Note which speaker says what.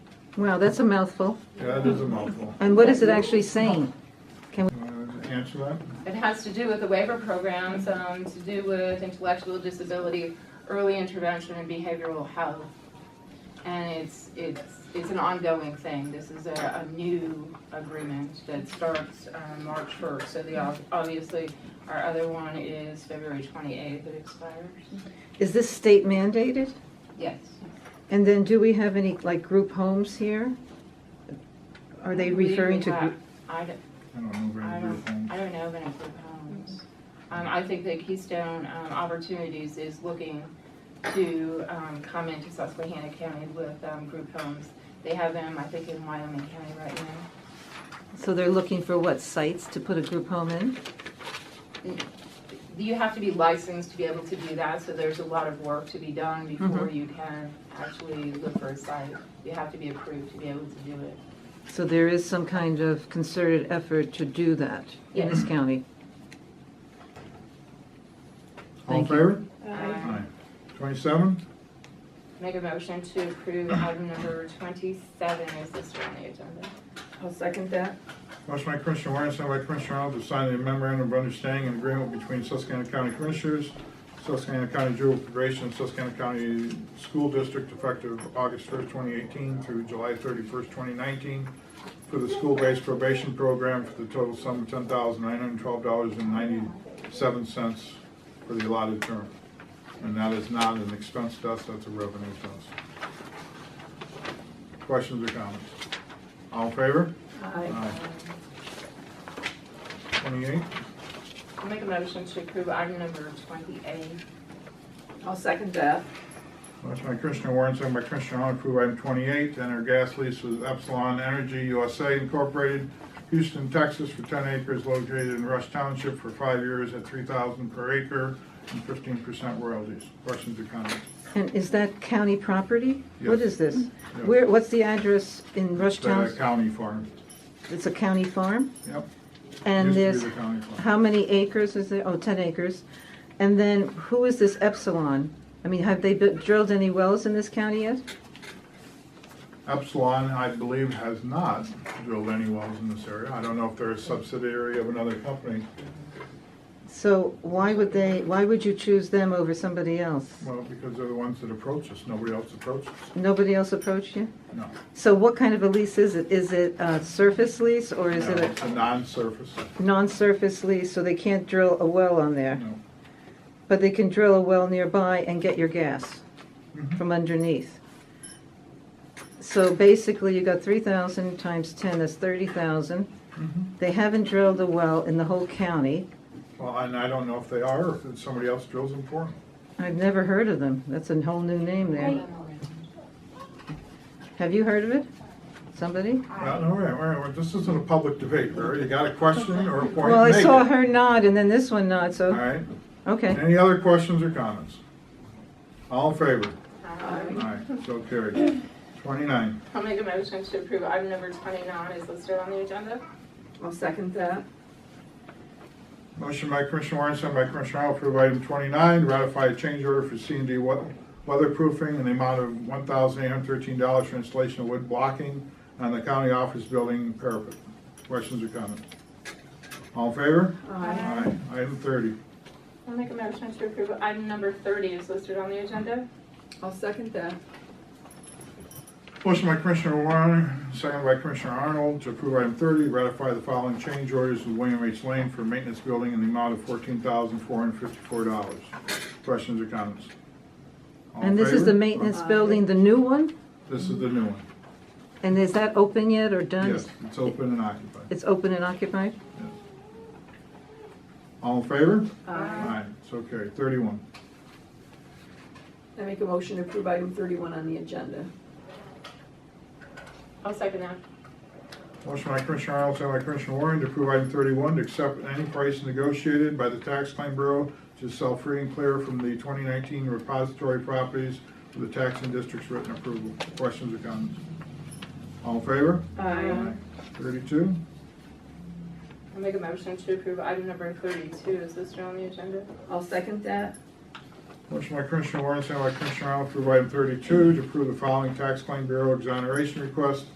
Speaker 1: Wow, that's a mouthful.
Speaker 2: That is a mouthful.
Speaker 1: And what is it actually saying?
Speaker 2: You want to answer that?
Speaker 3: It has to do with the waiver programs, um, to do with intellectual disability, early intervention and behavioral health. And it's, it's, it's an ongoing thing. This is a, a new agreement that starts, um, March first. So the, ob- obviously, our other one is February twenty-eighth that expires.
Speaker 1: Is this state mandated?
Speaker 3: Yes.
Speaker 1: And then do we have any, like, group homes here? Are they referring to? group?
Speaker 3: I don't,
Speaker 2: I don't know
Speaker 3: I
Speaker 2: very
Speaker 3: don't,
Speaker 2: good things.
Speaker 3: I don't know of any group homes. Um, I think that Keystone, um, Opportunities is looking to, um, come into Susquehanna County with, um, group homes. They have them, I think, in Wyoming County right now.
Speaker 1: So they're looking for what sites to put a group home in?
Speaker 3: You have to be licensed to be able to do that, so there's a lot of work to be done before you can actually look for a site. You have to be approved to be able to do it.
Speaker 1: So there is some kind of concerted effort to do that in this county.
Speaker 2: All in
Speaker 1: Thank you.
Speaker 2: favor?
Speaker 3: Um,
Speaker 2: Aye. Twenty-seven?
Speaker 3: Make a motion to approve item number twenty-seven is listed on the agenda.
Speaker 4: I'll second that.
Speaker 2: Motion by Commissioner Warren, sent by Commissioner Arnold to sign the memorandum of understanding and agreement between Susquehanna County Commissioners, Susquehanna County Juvenile Probation, and Susquehanna County School District effective August first, twenty eighteen through July thirty-first, twenty nineteen, for the school-based probation program for the total sum of ten thousand nine hundred twelve dollars and ninety-seven cents for the allotted term. And that is not an expense to us, that's a revenue to us. Questions or comments? All in favor? Aye. Twenty-eight,
Speaker 3: I'll make a motion to approve item number twenty-eight.
Speaker 4: I'll second that.
Speaker 2: motion by Commissioner Warren, second by Commissioner Arnold, approve item twenty-eight, enter gas lease with Epsilon Energy USA Incorporated, Houston, Texas, for ten acres located in Rush Township for five years at three thousand per acre and fifteen percent royalties. Questions or comments?
Speaker 1: And is that county property? What
Speaker 2: Yes.
Speaker 1: is this? Where, what's the address in Rush
Speaker 2: The
Speaker 1: Town?
Speaker 2: county farm,
Speaker 1: It's a county farm?
Speaker 2: yep.
Speaker 1: And
Speaker 2: Used
Speaker 1: there's,
Speaker 2: to be the county farm.
Speaker 1: how many acres is there? Oh, 10 acres. And then who is this Epsilon? I mean, have they bu- drilled any wells in this county yet?
Speaker 2: Epsilon, I believe, has not drilled any wells in this area. I don't know if they're a subsidiary of another company.
Speaker 1: So why would they, why would you choose them over somebody else?
Speaker 2: Well, because they're the ones that approach us. Nobody else approaches.
Speaker 1: Nobody else approached you?
Speaker 2: No.
Speaker 1: So what kind of a lease is it? Is it a surface lease or is
Speaker 2: No,
Speaker 1: it
Speaker 2: It's
Speaker 1: a
Speaker 2: a non-surface.
Speaker 1: non-surface lease, so they can't drill a well on there?
Speaker 2: No.
Speaker 1: But they can drill a well nearby and get your gas
Speaker 2: Mm-hmm.
Speaker 1: from underneath. So basically, you got three thousand times ten, that's thirty thousand. They haven't drilled a well in the whole county.
Speaker 2: Well, and I don't know if they are, or if somebody else drills them for them.
Speaker 1: I've never heard of them. That's a whole new name there. Have you heard of it? Somebody?
Speaker 2: Well, all right, all right, well, this isn't a public debate, Barry. You got a question or a point?
Speaker 1: Well, I
Speaker 2: Make
Speaker 1: saw
Speaker 2: it.
Speaker 1: her nod and then this one nod,
Speaker 2: All
Speaker 1: so,
Speaker 2: right.
Speaker 1: okay.
Speaker 2: Any other questions or comments? All in favor?
Speaker 3: Um,
Speaker 2: All right, so carried. Twenty-nine,
Speaker 3: I'll make a motion to approve item number twenty-nine is listed on the agenda.
Speaker 4: I'll second that.
Speaker 2: motion by Commissioner Warren, sent by Commissioner Arnold, approve item twenty-nine, ratify a change order for C and D weatherproofing in the amount of one thousand eight hundred thirteen dollars for installation of wood blocking on the county office building parapet. Questions or comments? All in favor? Aye. Item thirty.
Speaker 3: I'll make a motion to approve item number thirty is listed on the agenda.
Speaker 4: I'll second that.
Speaker 2: Motion by Commissioner Warren, second by Commissioner Arnold, to approve item thirty, ratify the following change orders with William H. Lane for maintenance building in the amount of fourteen thousand four hundred fifty-four dollars. Questions or comments? All in
Speaker 1: And this is the
Speaker 2: favor?
Speaker 1: maintenance building, the new one?
Speaker 2: This is the new one.
Speaker 1: And is that open yet or done?
Speaker 2: Yes, it's open and occupied.
Speaker 1: It's open and occupied?
Speaker 2: All in favor?
Speaker 4: Aye.
Speaker 2: Aye, so carried. Thirty-one.
Speaker 4: I make a motion to approve item thirty-one on the agenda.
Speaker 3: I'll second that.
Speaker 2: Motion by Commissioner Arnold, second by Commissioner Warren to approve item thirty-one, to accept any price negotiated by the Tax Claim Bureau to sell free and clear from the twenty nineteen repository properties to the taxing district's written approval. Questions or comments? All in favor?
Speaker 3: Aye.
Speaker 2: Thirty-two.
Speaker 3: I'll make a motion to approve item number thirty-two is listed on the agenda.
Speaker 4: I'll second that.
Speaker 2: Motion by Commissioner Warren, second by Commissioner Arnold, to approve item thirty-two, to approve the following tax claim bureau exoneration request